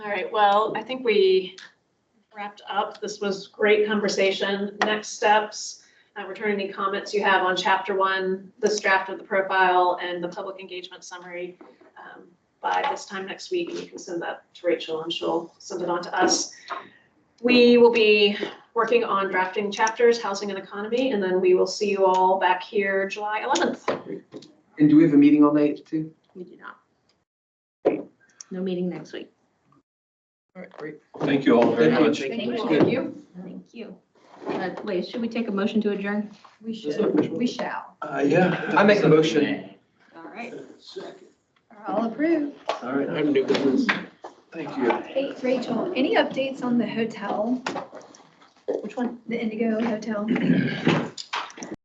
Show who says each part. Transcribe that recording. Speaker 1: right, well, I think we wrapped up. This was great conversation. Next steps, uh, return any comments you have on chapter one, this draft of the profile and the public engagement summary um, by this time next week, and you can send that to Rachel and she'll send it on to us. We will be working on drafting chapters, housing and economy, and then we will see you all back here July eleventh.
Speaker 2: And do we have a meeting on the eighth too?
Speaker 3: We do not. No meeting next week.
Speaker 2: All right, great.
Speaker 4: Thank you all very
Speaker 2: Thank you.
Speaker 4: much.
Speaker 2: Thank
Speaker 3: you.
Speaker 2: Thank you.
Speaker 3: Thank you. Uh, wait, should we take a motion to adjourn?
Speaker 5: We
Speaker 2: Is that
Speaker 5: should,
Speaker 2: official?
Speaker 5: we shall.
Speaker 4: Uh, yeah.
Speaker 2: I make a motion.
Speaker 3: All right.
Speaker 5: Are all approved.
Speaker 4: All right,
Speaker 2: I'm new business.
Speaker 4: thank you.
Speaker 5: Hey, Rachel, any updates on the hotel,
Speaker 3: Which one?
Speaker 5: the Indigo Hotel?